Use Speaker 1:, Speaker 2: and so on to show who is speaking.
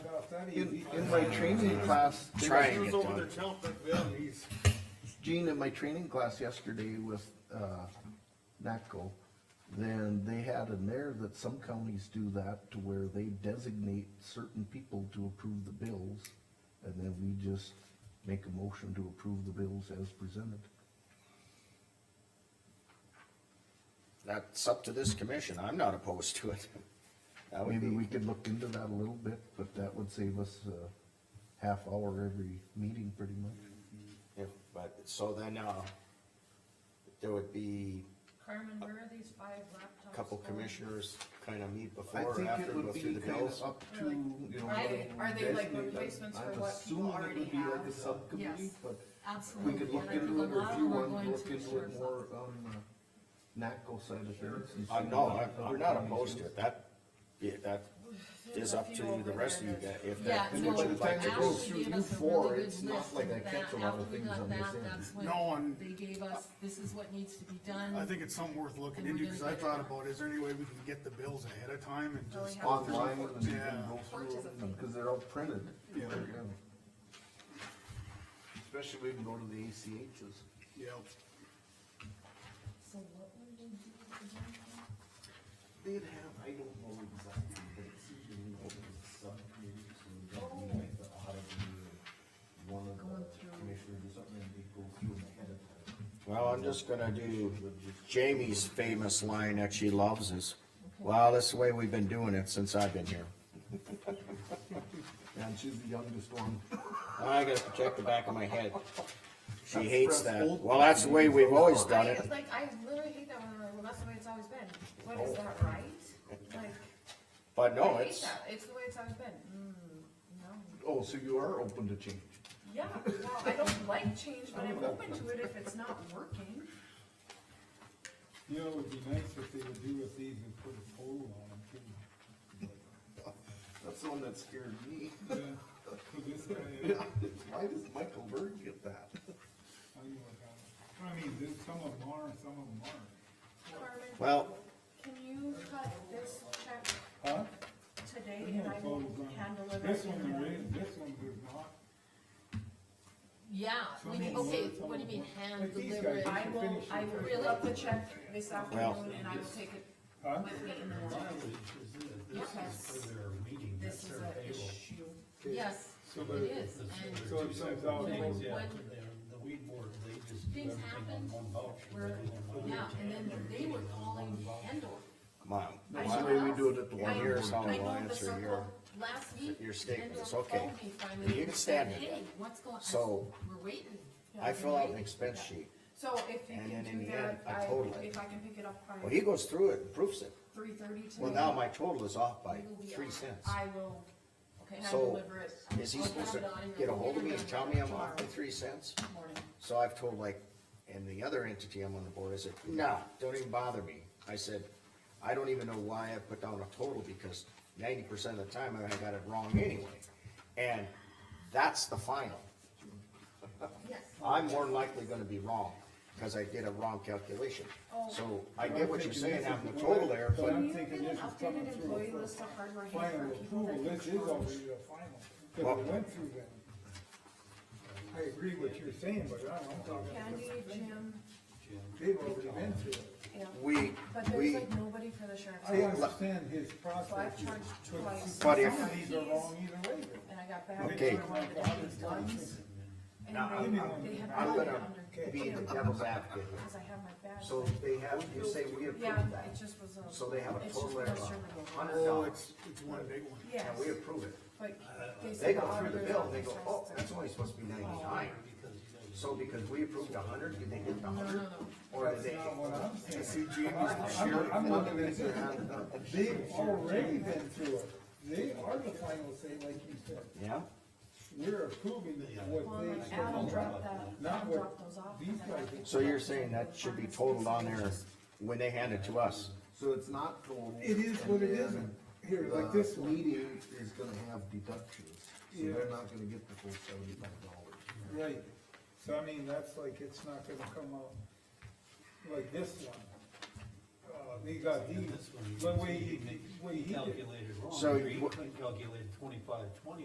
Speaker 1: that
Speaker 2: In,
Speaker 1: easy.
Speaker 2: in my training class, they were-
Speaker 3: Trying.
Speaker 1: He was
Speaker 3: get
Speaker 1: over
Speaker 3: done.
Speaker 1: there counting up them he's,
Speaker 2: Gene, in my training class yesterday with, uh, NACO, then they had in there that some counties do that to where they designate certain people to approve the bills, and then we just make a motion to approve the bills as presented.
Speaker 3: That's up to this commission, I'm not opposed to it. That would
Speaker 2: Maybe
Speaker 3: be,
Speaker 2: we could look into that a little bit, but that would save us a half hour every meeting pretty much.
Speaker 3: if, but, so then, uh, there would be
Speaker 4: Carmen, where are these five laptops?
Speaker 3: a couple
Speaker 4: going?
Speaker 3: commissioners kind of meet
Speaker 2: I
Speaker 3: before or
Speaker 2: think
Speaker 3: after,
Speaker 2: it
Speaker 3: go
Speaker 2: would
Speaker 3: through
Speaker 2: be
Speaker 3: the
Speaker 2: kind of
Speaker 3: bills.
Speaker 2: up to,
Speaker 4: Or like,
Speaker 2: you know.
Speaker 4: are
Speaker 2: what
Speaker 4: they- are they like
Speaker 2: designate.
Speaker 4: replacements for what people
Speaker 2: I'm assuming it would
Speaker 4: already
Speaker 2: be like a
Speaker 4: have?
Speaker 2: subcommittee,
Speaker 4: Yes.
Speaker 2: but we
Speaker 4: Absolutely.
Speaker 2: could look
Speaker 4: and I think
Speaker 2: into
Speaker 4: a
Speaker 2: it, or
Speaker 4: lot
Speaker 2: if
Speaker 4: of
Speaker 2: you
Speaker 4: them are
Speaker 2: want to
Speaker 4: going
Speaker 2: look
Speaker 4: to the
Speaker 2: into it
Speaker 4: sheriff's
Speaker 2: more
Speaker 4: office.
Speaker 2: on the NACO side of things. and
Speaker 3: Uh,
Speaker 2: see
Speaker 3: no,
Speaker 2: what
Speaker 3: I- I'm
Speaker 2: other
Speaker 3: not
Speaker 2: counties
Speaker 3: opposed
Speaker 2: do.
Speaker 3: to it, that, yeah, that
Speaker 4: There's
Speaker 3: is
Speaker 4: a
Speaker 3: up
Speaker 4: few
Speaker 3: to
Speaker 4: over
Speaker 3: the rest of
Speaker 4: there
Speaker 3: you guys,
Speaker 4: that-
Speaker 3: if
Speaker 4: Yeah,
Speaker 3: that
Speaker 2: And then by the
Speaker 3: commission
Speaker 4: no,
Speaker 2: time
Speaker 3: likes
Speaker 2: it
Speaker 3: it.
Speaker 2: goes
Speaker 4: Ashley
Speaker 2: through
Speaker 4: gave
Speaker 2: you
Speaker 4: us a
Speaker 2: four,
Speaker 4: really
Speaker 2: it's
Speaker 4: good
Speaker 2: not
Speaker 4: list
Speaker 2: like
Speaker 4: of
Speaker 2: I
Speaker 4: that,
Speaker 2: catch a lot of
Speaker 4: after we
Speaker 2: things
Speaker 4: got
Speaker 2: on this
Speaker 4: that,
Speaker 2: end.
Speaker 4: that's
Speaker 5: No,
Speaker 4: when
Speaker 5: and-
Speaker 4: they gave us, this is what needs to be
Speaker 5: I
Speaker 4: done.
Speaker 5: think it's something worth looking
Speaker 4: And we're
Speaker 5: into, cause
Speaker 4: gonna
Speaker 5: I
Speaker 4: get
Speaker 5: thought
Speaker 4: it.
Speaker 5: about, is there any way we can get the bills ahead of time and
Speaker 4: Really
Speaker 5: just,
Speaker 4: have-
Speaker 2: Online, and you can
Speaker 5: Yeah.
Speaker 2: go through them, because they're all printed.
Speaker 5: Yeah.
Speaker 2: They're, um, Especially we can go to the ACHs.
Speaker 5: yeah,
Speaker 4: So what would we do with the laptop?
Speaker 2: They'd have, I don't know exactly, but it seems to me that it's subcommittee, so we don't need like the audit review. One of
Speaker 4: Going
Speaker 2: the
Speaker 4: through.
Speaker 2: commissioners or something, and they go through them ahead of time.
Speaker 3: Well, I'm just gonna do Jamie's famous line that she loves is, well, this is the way we've been doing it since I've been here.
Speaker 2: And she's the youngest one.
Speaker 3: I gotta protect the back of my head. She hates
Speaker 2: press
Speaker 3: that.
Speaker 2: old
Speaker 3: Well, that's the way we've always done
Speaker 4: I,
Speaker 3: it.
Speaker 4: like, I literally hate that one, I'm like, well, that's the way it's always been, what, is that right? Like,
Speaker 3: But no,
Speaker 4: I
Speaker 3: Oh.
Speaker 4: hate
Speaker 3: it's,
Speaker 4: that, it's the way it's always been, mm, no.
Speaker 2: Oh, so you are open to change.
Speaker 4: Yeah, well, I don't like change, but I'm open to it if it's not working.
Speaker 1: you know, it would be nice if they would do with these and put a pole on them too.
Speaker 2: That's the one that scared me.
Speaker 1: But, yeah, 'cause this guy, uh,
Speaker 2: Why does Michael Berg get that?
Speaker 1: I know about it. I mean, this, some of them are, and some of them aren't.
Speaker 4: Carmen,
Speaker 3: well,
Speaker 4: Can you cut this check
Speaker 1: Huh?
Speaker 4: today
Speaker 1: There's
Speaker 4: and
Speaker 1: no
Speaker 4: I will
Speaker 1: totals on it.
Speaker 4: handle it?
Speaker 1: This one there is, this one there's not.
Speaker 6: Yeah,
Speaker 1: Some
Speaker 6: we,
Speaker 1: of them
Speaker 6: okay,
Speaker 1: are, some
Speaker 6: Ah, what do you
Speaker 1: of
Speaker 6: mean
Speaker 1: them aren't.
Speaker 6: hand
Speaker 1: Like these
Speaker 6: delivered?
Speaker 1: guys.
Speaker 4: I will, I will reel up the check this afternoon and I will take it
Speaker 1: Huh?
Speaker 4: with me in the morning. Yes. This is an issue.
Speaker 6: Yes,
Speaker 1: So
Speaker 6: it
Speaker 1: the,
Speaker 6: is, and
Speaker 1: so it comes
Speaker 6: you
Speaker 1: out.
Speaker 6: know,
Speaker 1: Things,
Speaker 6: what,
Speaker 7: The weed board, they just.
Speaker 6: things happened where, yeah, and then they were calling Endor.
Speaker 3: come on.
Speaker 2: That's the way we do it at the
Speaker 3: One
Speaker 2: one
Speaker 3: year's
Speaker 2: year.
Speaker 3: how
Speaker 6: I know the
Speaker 3: Alliance are here.
Speaker 6: circle, last week,
Speaker 3: Your
Speaker 6: Endor
Speaker 3: statements, okay.
Speaker 6: phoned me finally.
Speaker 3: You can stand
Speaker 6: and
Speaker 3: it.
Speaker 6: said, Hey, what's going, I said,
Speaker 3: So,
Speaker 6: we're waiting.
Speaker 3: I fill out an expense sheet.
Speaker 4: So if you
Speaker 3: And
Speaker 4: can
Speaker 3: then in
Speaker 4: do
Speaker 3: the end,
Speaker 4: that,
Speaker 3: I
Speaker 4: I,
Speaker 3: total it.
Speaker 4: if I can pick it up by
Speaker 3: Well, he goes through it and proves it.
Speaker 4: three thirty today.
Speaker 3: Well, now my total is off by
Speaker 6: We will be
Speaker 3: three
Speaker 6: on.
Speaker 3: cents.
Speaker 4: I will,
Speaker 6: Okay,
Speaker 4: and I
Speaker 3: So,
Speaker 4: deliver it
Speaker 3: Is he supposed to get a hold of me and tell me I'm off by three cents?
Speaker 4: morning.
Speaker 3: So I've told like, and the other entity I'm on the board, I said, no, don't even bother me. I said, I don't even know why I put down a total because ninety percent of the time I got it wrong anyway. And that's the final.
Speaker 6: Yes.
Speaker 3: I'm more than likely gonna be wrong because I did a wrong calculation.
Speaker 4: Oh.
Speaker 3: So I get what you're saying, having the total there,
Speaker 1: But
Speaker 3: but
Speaker 1: I'm
Speaker 4: Can you get
Speaker 1: thinking
Speaker 4: an
Speaker 1: this is coming
Speaker 4: updated
Speaker 1: through
Speaker 4: employee
Speaker 1: a
Speaker 4: list of hardware
Speaker 1: final
Speaker 4: hand for people
Speaker 1: approval,
Speaker 4: that
Speaker 1: this is
Speaker 4: challenge?
Speaker 1: already a final, because it went through them. I agree what you're saying, but I- I'm talking.
Speaker 4: Candy, Jim,
Speaker 1: They've already been through it.
Speaker 4: yeah,
Speaker 3: we,
Speaker 4: but there's
Speaker 3: we,
Speaker 4: like nobody for the sheriff's
Speaker 1: I
Speaker 4: office,
Speaker 1: understand his
Speaker 4: so I've
Speaker 1: process,
Speaker 4: charged twice.
Speaker 3: But if-
Speaker 1: some of these are wrong either way.
Speaker 4: And I got back.
Speaker 3: Okay.
Speaker 4: and I wanted to do these ones, and they- they have
Speaker 3: I'm
Speaker 4: not been
Speaker 3: gonna
Speaker 4: under
Speaker 3: be the
Speaker 4: control,
Speaker 3: devil's advocate here.
Speaker 4: Because I have my badge.
Speaker 3: So
Speaker 4: but-
Speaker 3: they have, you say we
Speaker 4: Yeah,
Speaker 3: approve that,
Speaker 4: it just was a.
Speaker 3: so they have a
Speaker 4: it's
Speaker 3: total
Speaker 4: just
Speaker 3: error
Speaker 4: a
Speaker 3: of
Speaker 4: survey.
Speaker 3: hundred
Speaker 5: oh,
Speaker 3: dollars,
Speaker 5: it's, it's one big one.
Speaker 4: Yes,
Speaker 3: and we approve it.
Speaker 4: but they
Speaker 3: They
Speaker 4: said
Speaker 3: go
Speaker 4: the
Speaker 3: through the
Speaker 4: auditor's
Speaker 3: bill, and they
Speaker 4: office
Speaker 3: go,
Speaker 4: has
Speaker 3: oh,
Speaker 4: to-
Speaker 3: that's only supposed to be ninety-nine. So because we approved a hundred, did they get the
Speaker 6: No, no,
Speaker 3: hundred? Or did they?
Speaker 1: That's not what I'm saying.
Speaker 3: See, Jamie's
Speaker 1: I'm, I'm looking at it, they've already been through it, they are the final say, like you said,
Speaker 3: Yeah,
Speaker 1: we're approving
Speaker 4: Well,
Speaker 1: what
Speaker 4: like
Speaker 1: they.
Speaker 4: Adam dropped that,
Speaker 1: Not
Speaker 4: Adam
Speaker 1: what
Speaker 4: dropped those off.
Speaker 1: these
Speaker 4: and I
Speaker 1: guys-
Speaker 4: picked
Speaker 3: so
Speaker 4: it
Speaker 3: you're
Speaker 4: up.
Speaker 3: saying that should be totaled on there when they hand it to us?
Speaker 2: So it's not total.
Speaker 1: It is what it
Speaker 2: and then
Speaker 1: isn't, here, like this
Speaker 2: the
Speaker 1: one,
Speaker 2: Meeting is gonna have deductions, so
Speaker 1: Yeah.
Speaker 2: they're not gonna get the full seventy-five dollars.
Speaker 1: right, so I mean, that's like, it's not gonna come out like this one. Uh, they got these, the way, he- the way he did. it.
Speaker 7: Calculated wrong.
Speaker 3: So
Speaker 7: You
Speaker 3: you-
Speaker 7: couldn't calculate twenty-five, twenty